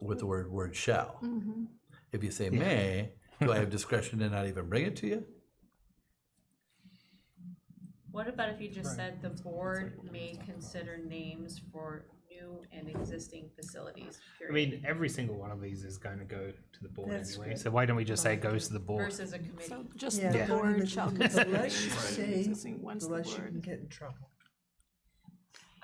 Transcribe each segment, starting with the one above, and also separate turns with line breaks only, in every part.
with the word, word shall.
Mm-hmm.
Mhm.
If you say may, do I have discretion to not even bring it to you?
What about if you just said the board may consider names for new and existing facilities?
I
period,
mean, every single one of these is going to go to the board
That's
anyway.
good.
So why don't we just say it goes to the board?
Versus a committee.
So just
Yeah,
the
Yeah.
don't
board
even-
shall
The
consider.
less you say,
existing ones
the
the
less you can
word.
get in trouble.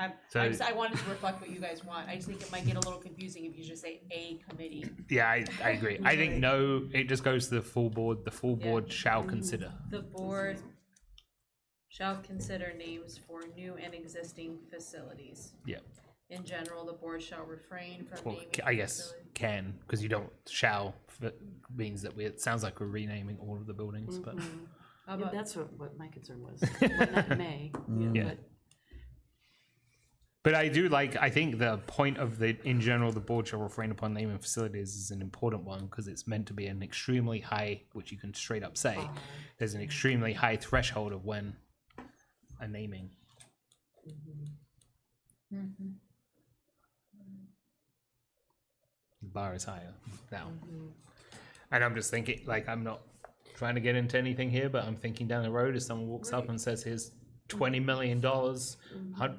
I,
So-
I just, I wanted to reflect what you guys want. I just think it might get a little confusing if you just say a committee.
Yeah, I, I agree. I think no, it just goes to the full board. The full
Yeah. Mm-hmm.
board shall consider.
The board shall consider names for new and existing facilities.
Yeah.
In general, the board shall refrain from
Well,
naming.
c- I guess
facility-
can because you don't shall f- means that we. It sounds like we're renaming all of the buildings, but
Mm-hmm. How
Yeah,
about-
that's what, what my concern was, Well, not may,
Yeah.
but
But I do like. I think the point of the in general, the board shall refrain upon naming facilities is an important one because it's meant to be an extremely high, which you can straight up say, there's an extremely high threshold of when a naming. The bar is higher now, and I'm just thinking like I'm not trying to get into anything here, but I'm thinking down the road if someone walks up and says, "Here's twenty million dollars,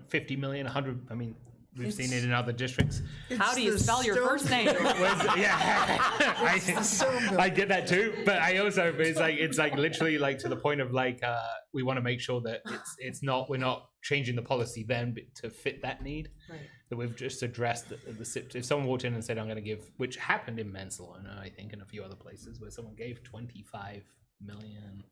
fifty million, hundred. I mean, we've seen it in other districts.
how
It's
do you
the
spell your
stone-
first name?
Whereas- yeah, I, I get that too, but I also but it's like it's like literally like to the point of like uh, we want to make sure that it's it's not we're not changing the policy then but to fit that need
Right.
that we've just addressed the, the sit- if someone walked in and said I'm going to give which happened in Mansalona I think and a few other places where someone gave 25 million.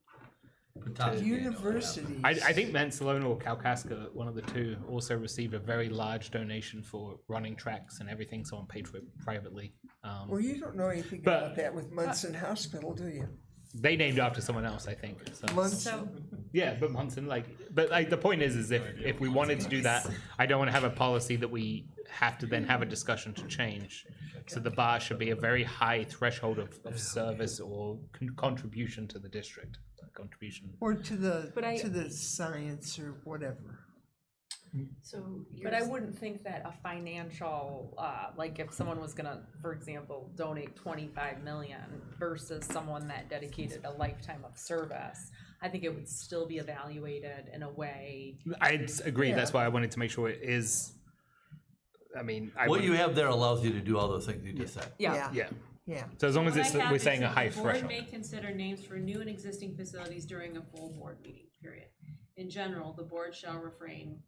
Universities.
I, I think Mansalona or Kalkaska, one of the two, also received a very large donation for running tracks and everything. Someone paid for it privately. Um,
Well, you don't know anything
But-
about that with Munson Hospital, do you?
they named after someone else, I think. So.
So,
Munson,
yeah, but Munson, like, but like the point is, is if if we wanted to do that, I don't want to have a policy that we have to then have a discussion to change. So the bar should be a very high threshold of, of service or con- contribution to the district, contribution.
or to the,
But I-
to the science or whatever.
So you're,
But I wouldn't think that a financial, uh, like if someone was gonna, for example, donate twenty-five million versus someone that dedicated a lifetime of service, I think it would still be evaluated in a way.
I s- agree. That's why I wanted to make sure it is. I mean, I
What
would,
you have there allows you to do all those things you just said.
Yeah,
yeah.
Yeah.
So as long as
What I
it's
have
we're
is
saying a
that
high
the board
threshold.
May consider names for new and existing facilities during a full board meeting, period. In general, the board shall refrain.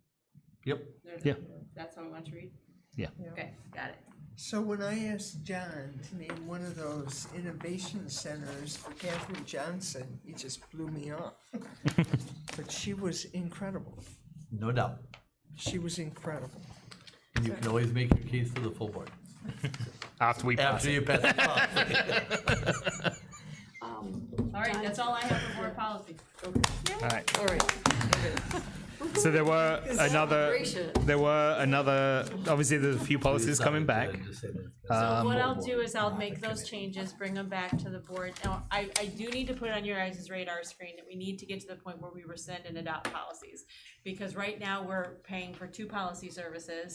Yep.
There's-
Yeah.
That's how I want to read?
Yeah.
Yeah.
Okay, got it.
So when I asked John to name one of those innovation centers for Katherine Johnson, he just blew me off. But she was incredible.
No doubt.
She was incredible.
And you can always make your case to the full board
After we pass
after
it.
you pass the policy.
um,
All right, that's all I have for board policy.
All right.
all right.
So there were another.
Celebration.
There were another. Obviously, there's a few policies coming back. Um,
So what I'll
board,
do is I'll
not
make
the
those
committee.
changes, bring them back to the board. Now, I, I do need to put it on your guys' radar screen that we need to get to the point where we rescind and adopt policies. Because right now, we're paying for two policy services,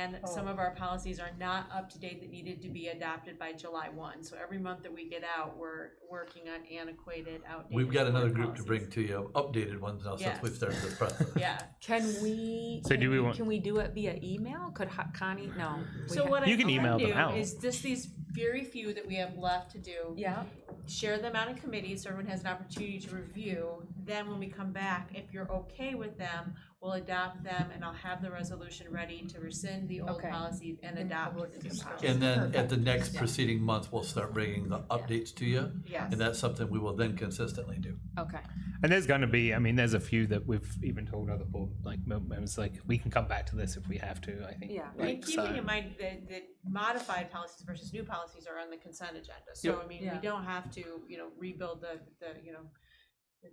and some of our policies are not up to date that needed to be adopted by July one. So every month that we get out, we're working on antiquated, outdated.
We've got
board
another group to
policies.
bring to you, updated ones now since
Yeah.
we've started the process.
Yeah,
Can we,
So
can
do we
we,
want-
can we do it via email? Could Ho- Connie, no. we
so
ha-
what I
You can
can
email them
do
out.
is just these very few that we have left to do.
Yeah,
share them out in committee so everyone has an opportunity to review. Then when we come back, if you're okay with them, we'll adopt them and I'll have the resolution ready to rescind the old
Okay.
policy and adopt the new policy.
And then at the next preceding month, we'll start bringing the updates to you.
Yes.
And that's something we will then consistently do.
okay.
And there's going to be, I mean, there's a few that we've even told other board like mem- members, like we can come back to this if we have to. I think.
Yeah.
Like,
And keeping in mind that, that modified policies versus new policies are on the consent agenda. So I mean, we
Yeah.
don't have to, you know, rebuild the, the, you know,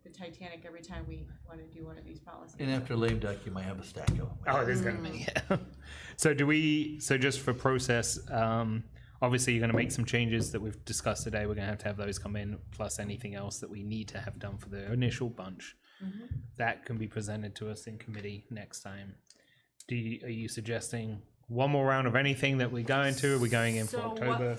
the Titanic every time we want to do one of these policies.
And after lame duck, you might have a stack of them.
oh, there's going to be.
Mm.
Yeah. so do we? So just for process, um, obviously you're going to make some changes that we've discussed today. We're going to have to have those come in, plus anything else that we need to have done for the initial bunch.
Mm-hmm.
That can be presented to us in committee next time. Do you, are you suggesting one more round of anything that we go into? Are we going in for
So what-
October?